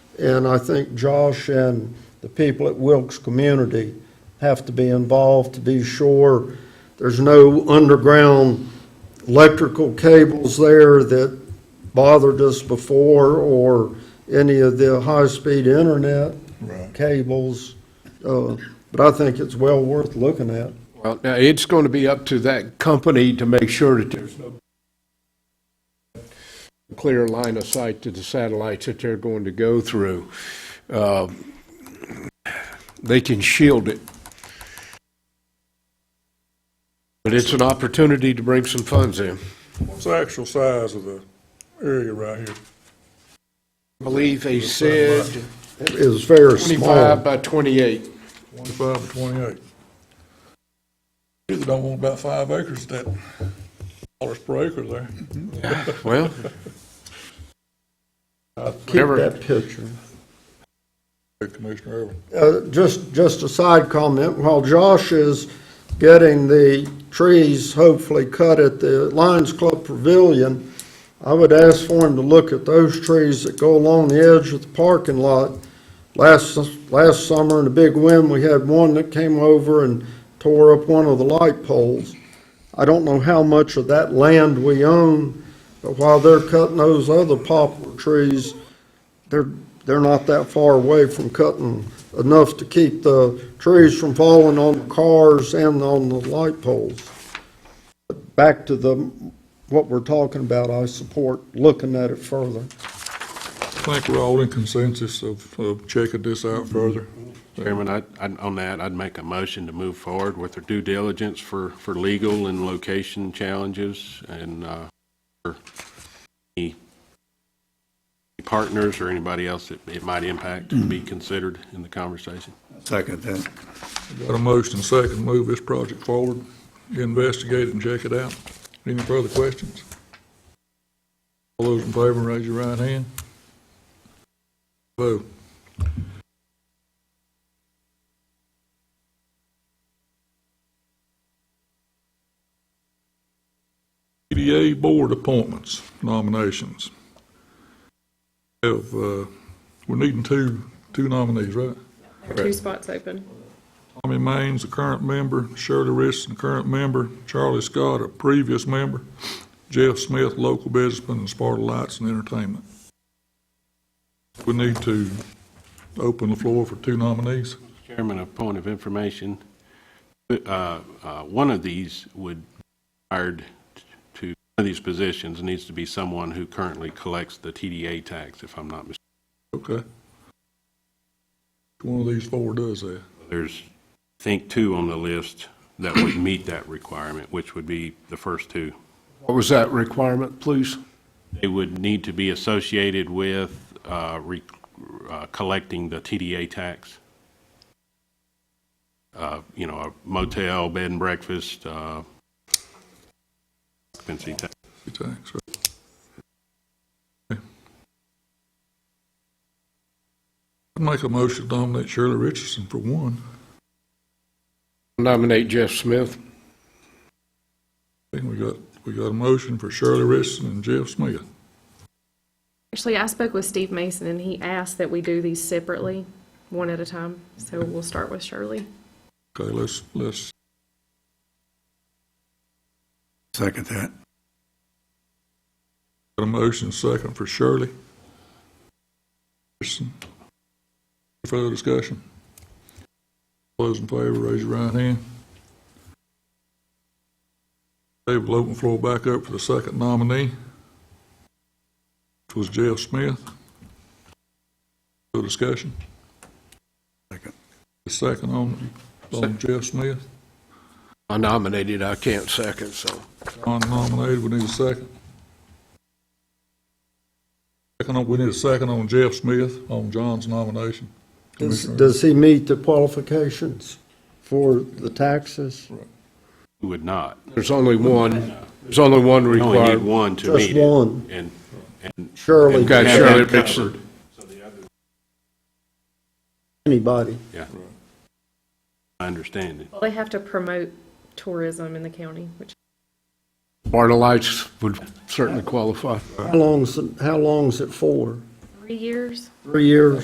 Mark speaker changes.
Speaker 1: And I think Josh and the people at Wilkes Community have to be involved to be sure there's no underground electrical cables there that bothered us before or any of the high-speed internet
Speaker 2: Right.
Speaker 1: cables. Uh, But I think it's well worth looking at.
Speaker 3: Well, now, it's going to be up to that company to make sure that there's no clear line of sight to the satellites that they're going to go through. Uh, They can shield it. But it's an opportunity to bring some funds in.
Speaker 2: What's the actual size of the area right here?
Speaker 3: I believe they said
Speaker 1: It was very small.
Speaker 3: 25 by 28.
Speaker 2: Twenty-five or twenty-eight? Either don't want about five acres, that dollars per acre there.
Speaker 3: Well,
Speaker 1: Keep
Speaker 3: Whatever.
Speaker 1: that picture.
Speaker 2: Commissioner Irwin.
Speaker 1: Uh, Just, just a side comment, while Josh is getting the trees hopefully cut at the Lions Club Pavilion, I would ask for him to look at those trees that go along the edge of the parking lot. Last, last summer in a big wind, we had one that came over and tore up one of the light poles. I don't know how much of that land we own, but while they're cutting those other poplar trees, they're, they're not that far away from cutting enough to keep the trees from falling on the cars and on the light poles. But Back to the, what we're talking about, I support looking at it further.
Speaker 2: I think we're all in consensus of, of checking this out further.
Speaker 4: Chairman, I, I'd- on that, I'd make a motion to move forward with their due diligence for, for legal and location challenges and, uh, for any partners or anybody else that it might impact to be considered in the conversation.
Speaker 5: Second that.
Speaker 2: Got a motion and second, move this project forward, investigate it and check it out. Any further questions? All those in favor, raise your right hand. Vote. EDA Board appointments, nominations. Have, uh, we're needing two, two nominees, right?
Speaker 6: Two spots open.
Speaker 2: Tommy Maines, a current member, Shirley Richardson, a current member, Charlie Scott, a previous member, Jeff Smith, local businessman, and Sparta Lights and Entertainment. We need to open the floor for two nominees.
Speaker 4: Chairman, a point of information, uh, uh, one of these would, hired to, one of these positions needs to be someone who currently collects the TDA tax, if I'm not mistaken.
Speaker 2: Okay. One of these four does that.
Speaker 4: There's, I think, two on the list that would meet that requirement, which would be the first two.
Speaker 3: what was that requirement, please?
Speaker 4: They would need to be associated with uh, re- uh, collecting the TDA tax. Uh, You know, a motel, bed and breakfast, uh, occupancy tax.
Speaker 2: Thanks. I'd make a motion to nominate Shirley Richardson for one.
Speaker 3: Nominate Jeff Smith.
Speaker 2: I think we got, we got a motion for Shirley Richardson and Jeff Smith.
Speaker 6: Actually, I spoke with Steve Mason, and he asked that we do these separately, one at a time. So we'll start with Shirley.
Speaker 2: Okay, let's, let's
Speaker 5: Second that.
Speaker 2: Got a motion second for Shirley. Anderson. Further discussion? All those in favor, raise your right hand. Dave will open the floor back up for the second nominee, which was Jeff Smith. Further discussion?
Speaker 5: Second.
Speaker 2: The second on, on Jeff Smith,
Speaker 3: I nominated, I can't second, so.
Speaker 2: John nominated, we need a second. Second, on- we need a second on Jeff Smith, on John's nomination.
Speaker 1: Does,
Speaker 2: Commissioner.
Speaker 1: does he meet the qualifications for the taxes?
Speaker 4: Who would not?
Speaker 3: There's only one, there's only one
Speaker 4: We only need
Speaker 3: required.
Speaker 4: one to
Speaker 1: Just
Speaker 4: meet it.
Speaker 1: one.
Speaker 4: And, and
Speaker 1: Surely,
Speaker 3: Okay,
Speaker 4: Have
Speaker 3: Shirley
Speaker 4: that
Speaker 3: Richardson.
Speaker 1: anybody.
Speaker 4: I understand it.
Speaker 6: Well, they have to promote tourism in the county, which
Speaker 3: Marta Lights would certainly qualify.
Speaker 1: How long's, it- how long's it for?
Speaker 6: three years.
Speaker 1: Three years?